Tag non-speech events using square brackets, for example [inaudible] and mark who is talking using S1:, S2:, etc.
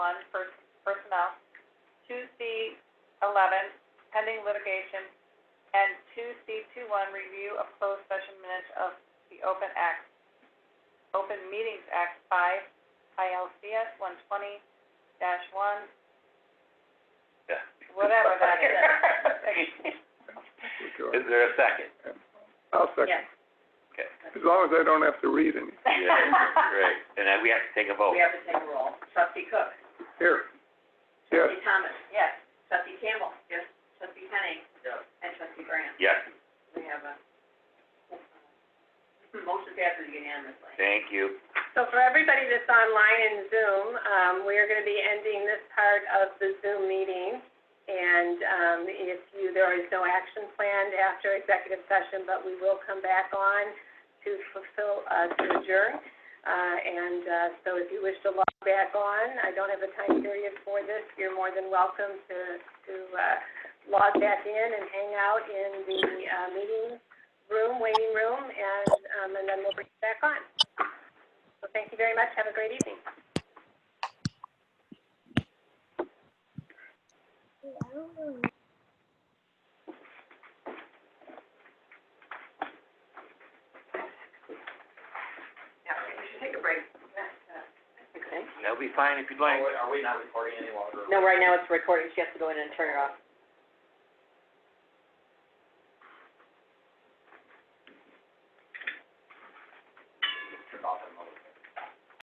S1: one, pers- personnel, two C eleven, pending litigation, and two C two one, review of closed session minutes of the Open Act, Open Meetings Act five, ILCS one twenty dash one,
S2: Yeah.
S1: whatever that [laughs] is.
S2: Is there a
S1: [laughs]
S2: second?
S3: I'll second,
S1: Yes.
S2: Okay.
S3: as long as I don't have to read any.
S2: Right, and then we have to take a vote.
S1: We have to take a roll. Trustee Cook?
S3: Here. Yes,
S1: Trustee Thomas? Yes. Trustee Campbell? Yes. Trustee Henning? Yes. And Trustee Grant?
S2: Yes,
S1: We have a motion passes unanimously.
S2: thank you.
S4: So for everybody that's online and Zoom, um, we are gonna be ending this part of the Zoom meeting. And, um, if you, there is no action planned after executive session, but we will come back on to fulfill, uh, to adjourn. Uh, and, uh, so if you wish to log back on, I don't have a time period for this, you're more than welcome to, to, uh, log back in and hang out in the, uh, meeting room, waiting room, and, um, and then we'll bring you back on. So thank you very much. Have a great evening.
S1: Yeah, we should take a break.
S2: That'll be fine if you'd like.
S1: No, right now it's recording. She has to go in and turn it off.